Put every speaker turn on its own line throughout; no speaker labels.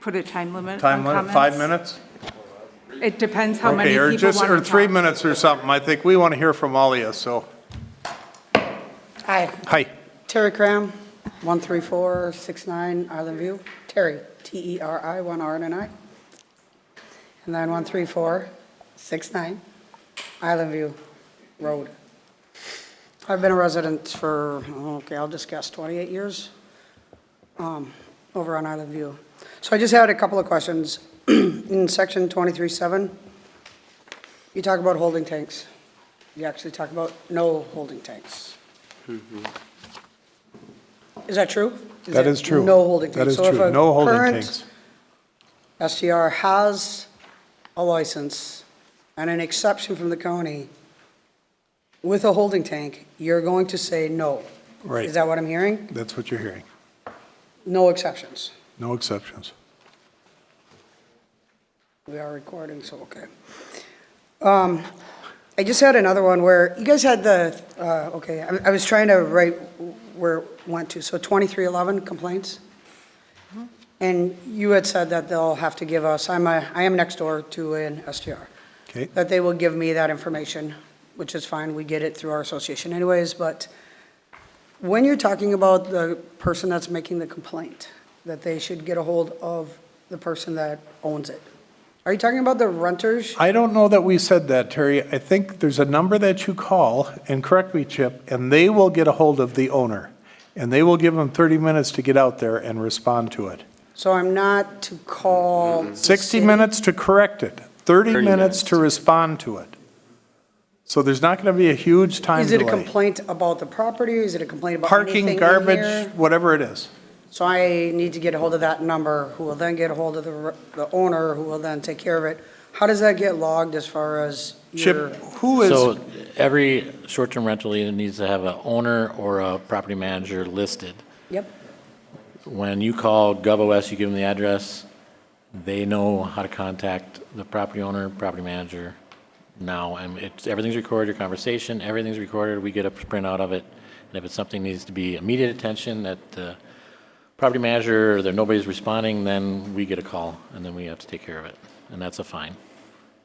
put a time limit on
Time limit, five
comments?
minutes?
It depends how many
Okay,
people
or
want to
just,
talk.
or three minutes or something. I think we want to hear from all of you, so.
Hi,
Hi.
Terry Cram, 13469 Island View. Terry, T-E-R-I, one R and an I. And then 13469 Island View Road. I've been a resident for, okay, I'll just guess 28 years um, over on Island View. So I just had a couple of questions. In section 23.7, you talk about holding tanks. You actually talk about no holding tanks. Is that true?
Mm-hmm. That
it
is true.
No holding tanks.
That is
So if
true.
a
No holding
current
tanks.
STR has a license and an exception from the county with a holding tank, you're going to say no.
Right.
Is that what I'm hearing?
That's what you're hearing.
No exceptions.
No exceptions.
We are recording, so okay. Um, I just had another one where, you guys had the, uh, okay, I I was trying to write where it went to, so 2311 complaints? And you had said that they'll have to give us, I'm a, I am next door to an STR.
Okay.
That they will give me that information, which is fine, we get it through our association anyways, but when you're talking about the person that's making the complaint, that they should get a hold of the person that owns it, are you talking about the renters?
I don't know that we said that, Terry. I think there's a number that you call, and correct me, Chip, and they will get a hold of the owner. And they will give them 30 minutes to get out there and respond to it.
So I'm not to call. the
60
city.
minutes to correct it, 30 minutes to respond to it. So there's not going to be a huge time
Is it a
delay.
complaint about the property? Is it a complaint about anything
Parking,
in here?
garbage, whatever it is.
So I need to get a hold of that number, who will then get a hold of the, r- the owner, who will then take care of it. How does that get logged as far as
Chip,
your?
who is,
So every short-term rental unit needs to have an owner or a property manager listed.
Yep.
When you call GovOS, you give them the address, they know how to contact the property owner, property manager now, and it's, everything's recorded, your conversation, everything's recorded, we get a printout of it, and if it's something needs to be immediate attention, that the property manager, or that nobody's responding, then we get a call, and then we have to take care of it, and that's a fine.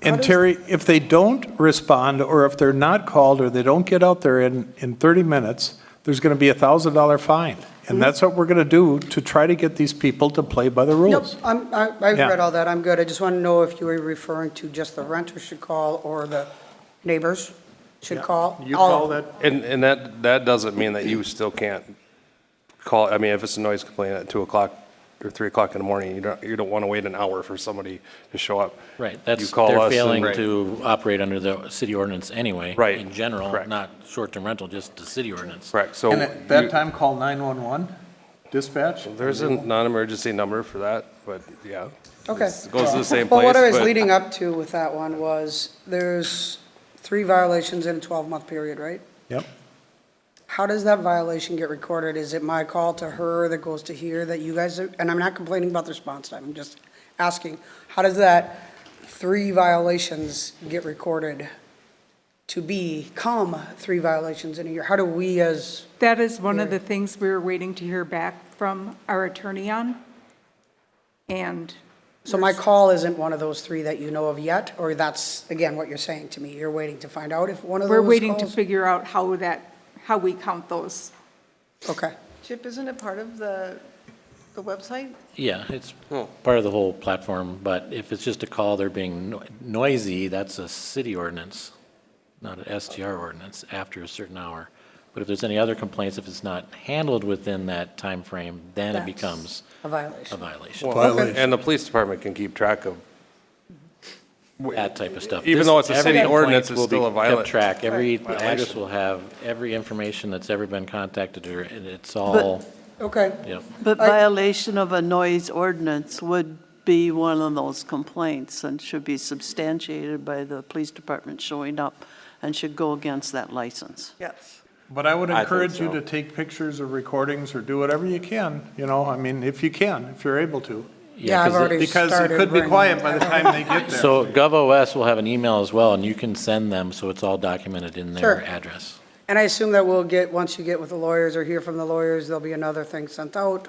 and Terry, if they don't respond, or if they're not called, or they don't get out there in, in 30 minutes, there's going to be a $1,000 fine. And that's what we're going to do to try to get these people to play by the
Nope,
rules.
I'm, I, I've
Yeah.
read all that, I'm good. I just want to know if you were referring to just the renter should call or the neighbors should call. All of them.
And, and that, that doesn't mean that you still can't call, I mean, if it's a noise complaint at two o'clock or three o'clock in the morning, you don't, you don't want to wait an hour for somebody to show up.
Right,
You
that's,
call us
they're
and-
failing to operate under the city ordinance anyway.
Right,
In general,
correct.
not short-term rental, just the city ordinance.
Correct, so you-
time, call 911 dispatch?
there's a non-emergency number for that, but yeah.
Okay.
It Goes to the same
Well,
place.
what I was
but-
leading up to with that one was, there's three violations in a 12-month period, right?
Yep.
How does that violation get recorded? Is it my call to her that goes to here that you guys, are- and I'm not complaining about the response time, I'm just asking, how does that three violations get recorded to become three violations in a year? How do we as,
That is one of the things we were waiting to hear back from our attorney on. And
so my call isn't one of those three that you know of yet? Or that's, again, what you're saying to me, you're waiting to find out if one of those
we're waiting to
calls-
figure out how that, how we count those.
Okay,
Chip, isn't it part of the, the website?
Yeah, it's part of the whole platform, but if it's just a call, they're being no- noisy, that's a city ordinance, not an STR ordinance, after a certain hour. But if there's any other complaints, if it's not handled within that time frame, then it
That's-
becomes
a violation.
a violation,
Well, And the police department can keep track of,
that type of stuff.
Even
This-
though it's a
every
city
complaint
ordinance, it's
will be
still a
kept
violent-
Track, every address will have every information that's ever been contacted, or and it's all,
Okay.
yep.
But violation of a noise ordinance would be one of those complaints and should be substantiated by the police department showing up and should go against that license. Yes.
But I would
I think
encourage you
so.
to take pictures or recordings or do whatever you can, you know, I mean, if you can, if you're able to.
Yeah, I've
'cause it-
already started.
Because it could be
bringing
quiet
it
by the
up.
time they get there.
So GovOS will have an email as well, and you can send them, so it's all documented in
Sure.
their address.
And I assume that we'll get, once you get with the lawyers or hear from the lawyers, there'll be another thing sent out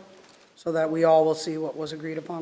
so that we all will see what was agreed upon.